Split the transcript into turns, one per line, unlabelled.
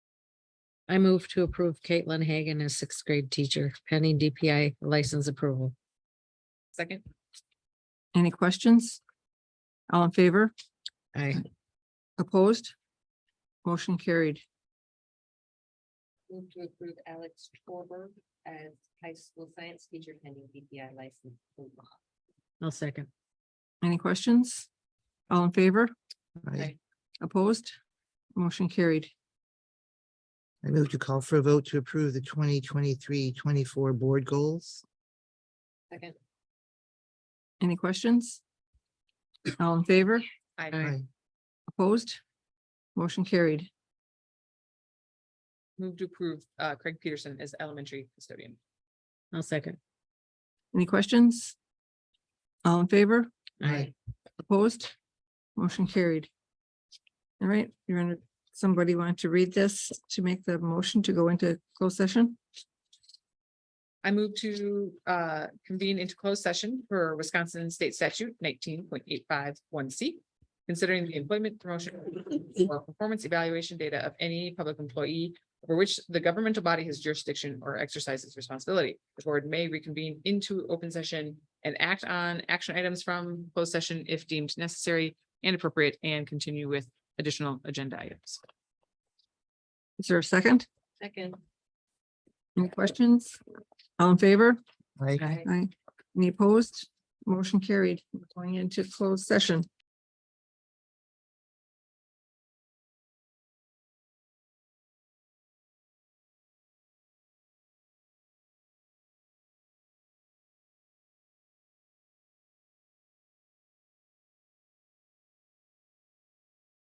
I move to approve Caitlin Hagan as sixth grade teacher pending DPI license approval.
Second.
Any questions? All in favor?
I,
Opposed? Motion carried.
Move to approve Alex Torberg as high school science teacher pending DPI license. approval.
I'll second.
Any questions? All in favor?
Aye.
I,
Opposed? Motion carried.
I move to call for a vote to approve the 2023-24 board goals.
Second.
Any questions? All in favor?
Aye.
I,
Opposed? Motion carried.
Move to approve uh, Craig Peterson as elementary custodian.
I'll second.
Any questions? All in favor?
I,
Opposed? Motion carried. All right, you're in, somebody want to read this to make the motion to go into closed session?
I move to uh, convene into closed session for Wisconsin State Statute nineteen point eight five one C. Considering the employment promotion or performance evaluation data of any public employee over which the governmental body has jurisdiction or exercises responsibility. The board may reconvene into open session and act on action items from closed session if deemed necessary and appropriate and continue with additional agenda items.
Is there a second?
Second.
Any questions? All in favor?
I,
Aye. Any opposed? Motion carried. We're Going into closed session.